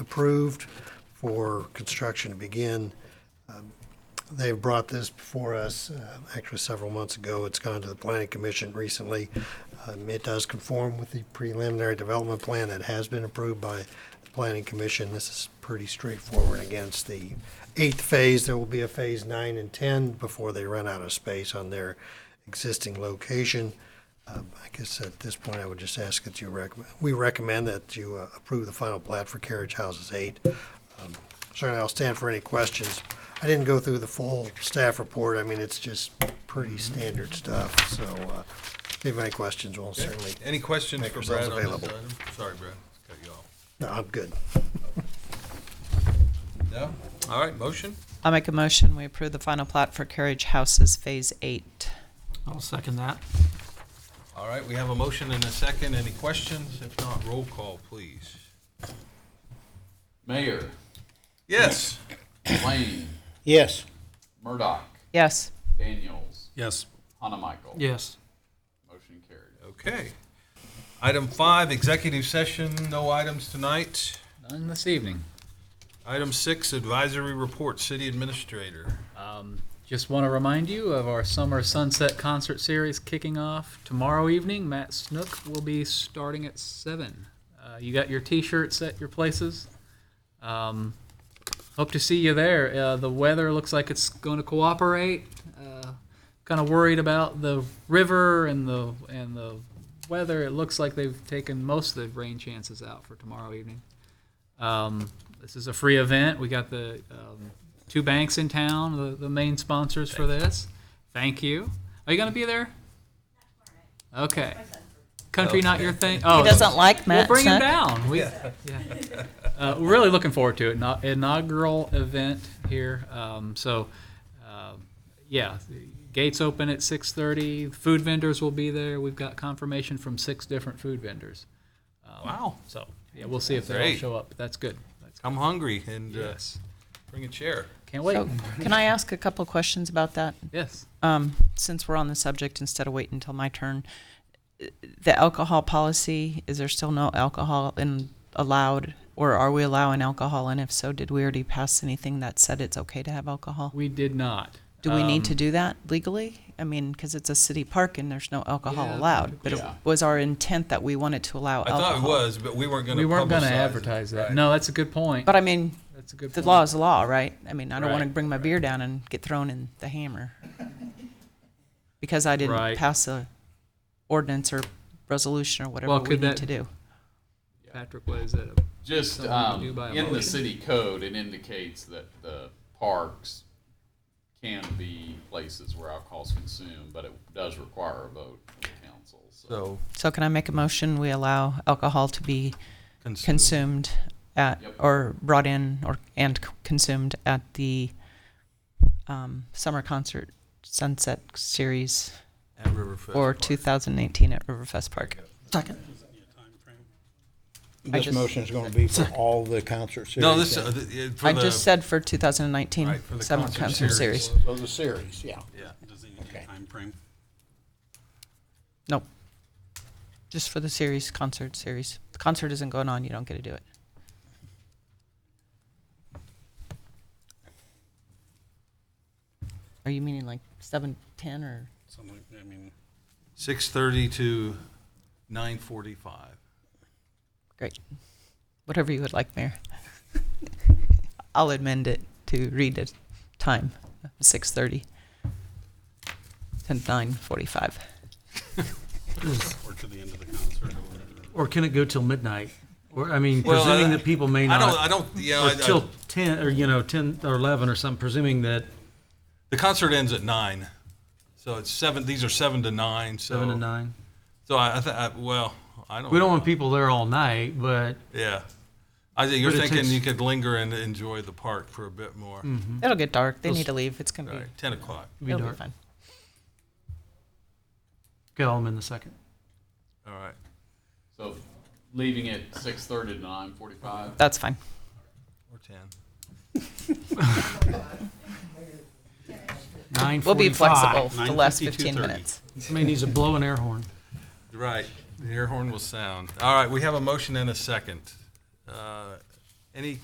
approved for construction to begin. Um, They've brought this before us, uh, actually several months ago. It's gone to the planning commission recently. Um, It does conform with the preliminary development plan that has been approved by the planning commission. This is pretty straightforward against the eighth phase. There will be a phase nine and 10 before they run out of space on their existing location. Um, I guess at this point, I would just ask that you recommend, we recommend that you uh, approve the final plat for Carriage Houses 8. Um, Certainly, I'll stand for any questions. I didn't go through the full staff report. I mean, it's just pretty standard stuff, so uh, if you have any questions, we'll certainly, Any questions Make for yourselves Brad on this available. item? Sorry, Brad, cut you off. no, I'm good. No? All right, motion? I'll make a motion, we approve the final plat for Carriage Houses Phase Eight. I'll second that. All right, we have a motion and a second. Any questions? If not, roll call, please. Mayor, Yes. Lane, Yes. Murdoch, Yes, Daniels, Yes. Hanamichael. Yes. Motion carried. Okay. Item five, executive session, no items tonight. None this evening. Item six, advisory report, city administrator. Um, just want to remind you of our summer sunset concert series kicking off tomorrow evening. Matt Snook will be starting at seven. Uh, you got your T-shirts at your places. Um, hope to see you there. Uh, the weather looks like it's going to cooperate. Uh, kind of worried about the river and the and the weather. It looks like they've taken most of the rain chances out for tomorrow evening. Um, this is a free event. We got the um, two banks in town, the, the main sponsors for this. Thank you. Are you going to be there? Okay. Country not your thing. Oh, he doesn't like We'll Matt bring him Snook. down. We, yeah. Uh, we're really looking forward to it. Ina- Inaugural event here. Um, so, uh, yeah, the gates open at 6:30. Food vendors will be there. We've got confirmation from six different food vendors. Um, Wow. So, yeah, we'll see if they all Great. show up. That's good. That's I'm hungry and uh, Yes. bring a chair. Can't wait. Oh. So, Oh, Can I ask a couple questions about that? Yes. Um, since we're on the subject, instead of waiting until my turn, uh, the alcohol policy, is there still no alcohol in allowed? Or are we allowing alcohol? And if so, did we already pass anything that said it's okay to have alcohol? We did not. Do we need Um, to do that legally? I mean, because it's a city park and there's no alcohol Yeah. allowed, but it Yeah. was our intent that we wanted to allow I thought it alcohol. was, but we weren't going to We weren't going to publicize it. advertise that. Right. No, that's a good point. But I mean, That's a good the point. law is the law, right? I mean, I don't want to Right, bring my beer down and get thrown in the hammer because I didn't Right. pass a ordinance or resolution or whatever Well, we could need that- to do. Patrick, what is that? Just Something we um, do by a in the motion. city code, it indicates that the parks can be places where alcohol's consumed, but it does require a vote from the council. So So. So can I make a motion? We allow alcohol to be consumed at Yep. or brought in or and c- consumed at the um, summer concert sunset series At Riverfest. or 2018 at Riverfest Park. Second. This just- motion's gonna be for all the concert series. No, this, then. uh, th- uh, for I the- just said for 2019 Right, for the summer concert concert series. series. So Oh, the series, yeah. Yeah. Does it need Okay. a time frame? Nope. Just for the series, concert series. The concert isn't going on, you don't get to do it. Are you meaning like seven, ten, or? Something, like- I mean, Six thirty to nine forty-five. Great. Whatever you would like, Mayor. I'll amend it to read it time, six thirty to nine forty-five. or to the end of the concert or whatever. Or can it go till midnight? Or, I mean, Well, presuming I- that people may I not. don't, I don't, you know, Or I- I- till ten, or you know, ten or eleven or something, presuming that the concert ends at nine. So it's seven, these are seven to nine, so. seven to nine. So I, I, th- I, well, I don't. We don't want people there all night, but Yeah. I think you're But it thinking takes- Mm-hmm. you could linger and enjoy the park for a bit more. It'll get dark, they need to leave, it's All gonna right, ten o'clock. be, be it'll be dark. fine. Okay, I'll amend the second. All right. so leaving it 6:30 to 9:45. That's fine. Or ten. Nine We'll be flexible forty-five. for the last 9:50, 15 2:30. minutes. Somebody needs to blow an air horn. Right. The air horn will sound. All right. We have a motion and a second. Uh, any